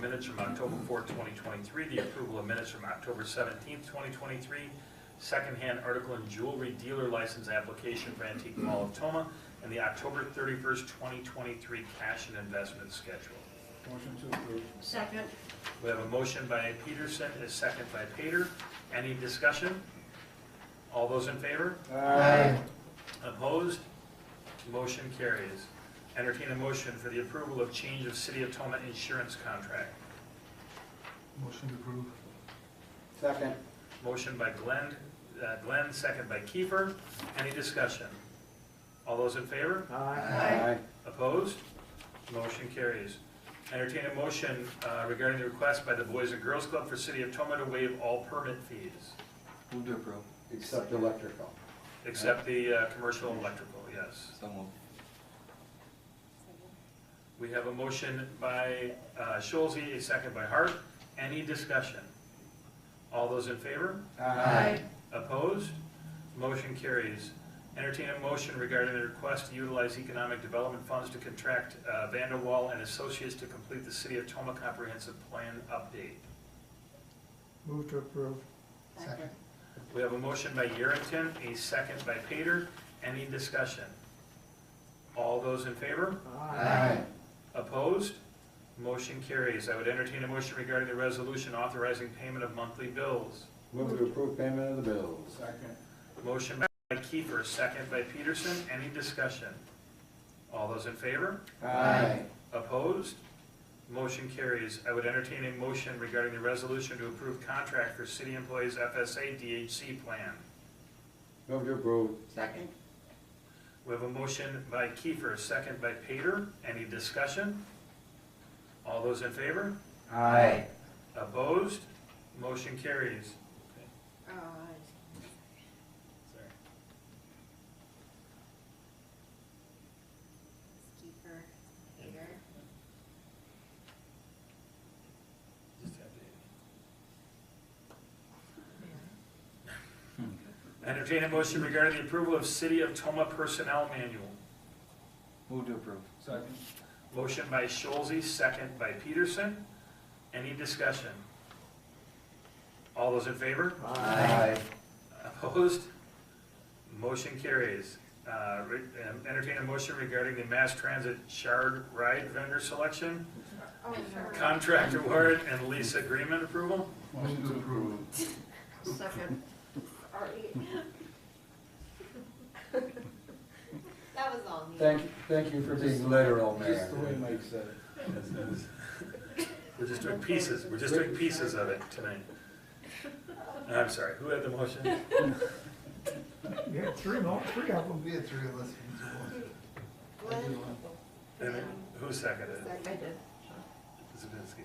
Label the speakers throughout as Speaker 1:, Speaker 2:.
Speaker 1: minutes from October 4, 2023, the approval of minutes from October 17, 2023, secondhand article and jewelry dealer license application for Antique Mall of Toma, and the October 31st, 2023 cash and investment schedule.
Speaker 2: Motion to approve.
Speaker 3: Second.
Speaker 1: We have a motion by Peterson, a second by Pater. Any discussion? All those in favor?
Speaker 2: Aye.
Speaker 1: Opposed? Motion carries. Entertain a motion for the approval of change of City of Toma insurance contract.
Speaker 4: Motion to approve.
Speaker 2: Second.
Speaker 1: Motion by Glenn, uh, Glenn, second by Kiefer. Any discussion? All those in favor?
Speaker 3: Aye.
Speaker 1: Opposed? Motion carries. Entertain a motion uh, regarding the request by the Boys and Girls Club for City of Toma to waive all permit fees,
Speaker 4: Move to approve.
Speaker 2: Except electrical.
Speaker 1: except the uh, commercial electrical, yes.
Speaker 4: So moved.
Speaker 1: We have a motion by uh, Schulze, a second by Hart. Any discussion? All those in favor? Opposed? Motion carries. Entertain a motion regarding the request to utilize economic development funds to contract uh, Vanderwall and Associates to complete the City of Toma Comprehensive Plan update.
Speaker 4: Move to approve.
Speaker 3: Second.
Speaker 1: We have a motion by Yerington, a second by Pater. Any discussion? All those in favor?
Speaker 2: Aye.
Speaker 1: Opposed? Motion carries. I would entertain a motion regarding the resolution authorizing payment of monthly bills.
Speaker 2: Move to approve payment of the bills. Second.
Speaker 1: Motion by Kiefer, second by Peterson. Any discussion? All those in favor?
Speaker 2: Aye.
Speaker 1: Opposed? Motion carries. I would entertain a motion regarding the resolution to approve contract for city employees FSA DHC plan.
Speaker 2: Move to approve.
Speaker 3: Second.
Speaker 1: We have a motion by Kiefer, second by Pater. Any discussion? All those in favor?
Speaker 2: Aye.
Speaker 1: Opposed? Motion carries.
Speaker 3: Uh, Kiefer, Peter.
Speaker 1: Entertain a motion regarding the approval of City of Toma Personnel Manual.
Speaker 4: Move to approve. Second.
Speaker 1: Motion by Schulze, second by Peterson. Any discussion? All those in favor?
Speaker 2: Aye.
Speaker 1: Opposed? Motion carries. Uh, re- um, Entertain a motion regarding the mass transit shard ride vendor selection,
Speaker 3: Oh, sorry.
Speaker 1: contract award, and lease agreement approval.
Speaker 4: Motion to approve.
Speaker 3: Second. That was all me.
Speaker 2: Thank, thank you for being literal, Mayor.
Speaker 5: Just the way Mike said it.
Speaker 1: We're just doing pieces, we're just doing pieces of it tonight. I'm sorry, who had the motion?
Speaker 4: You had three, no, three of them.
Speaker 5: We had three of us.
Speaker 3: Glenn?
Speaker 1: And who seconded it?
Speaker 3: Seconded.
Speaker 1: Zabinski.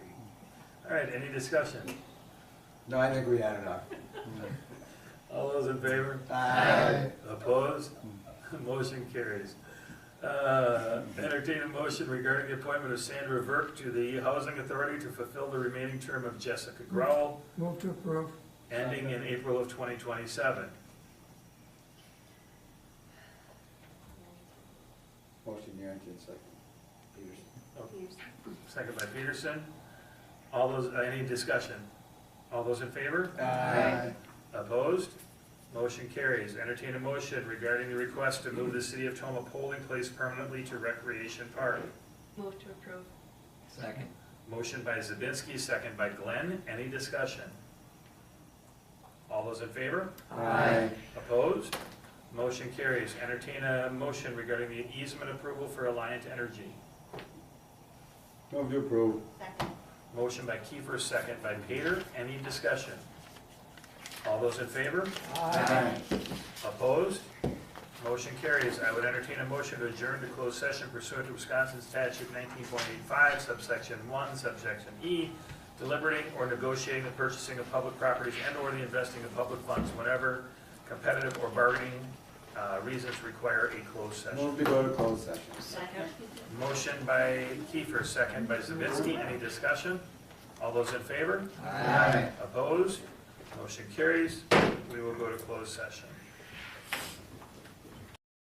Speaker 1: All right, any discussion?
Speaker 2: No, I think we had enough.
Speaker 1: All those in favor?
Speaker 2: Aye.
Speaker 1: Opposed? Motion carries. Uh, Entertain a motion regarding the appointment of Sandra Verk to the Housing Authority to fulfill the remaining term of Jessica Growl,
Speaker 4: Move to approve.
Speaker 1: ending in April of 2027.
Speaker 2: Motion, Yerington, second. Peterson.
Speaker 3: Peterson.
Speaker 1: Second by Peterson. All those, uh, any discussion? All those in favor?
Speaker 2: Aye.
Speaker 1: Opposed? Motion carries. Entertain a motion regarding the request to move the City of Toma polling place permanently to Recreation Park.
Speaker 3: Move to approve.
Speaker 5: Second.
Speaker 1: Motion by Zabinski, second by Glenn. Any discussion? All those in favor?
Speaker 2: Aye.
Speaker 1: Opposed? Motion carries. Entertain a motion regarding the easement approval for Alliant Energy.
Speaker 2: Move to approve.
Speaker 3: Second.
Speaker 1: Motion by Kiefer, second by Pater. Any discussion? All those in favor?
Speaker 2: Aye.
Speaker 1: Opposed? Motion carries. I would entertain a motion to adjourn to closed session pursuant to Wisconsin statute 19.85 subsection 1 subsection E, deliberating or negotiating the purchasing of public properties and/or the investing of public funds whenever competitive or bargaining uh, reasons require a closed session.
Speaker 2: Move to go to closed session.
Speaker 3: Second.
Speaker 1: Motion by Kiefer, second by Zabinski. Any discussion? All those in favor?
Speaker 2: Aye.
Speaker 1: Opposed? Motion carries. We will go to closed session.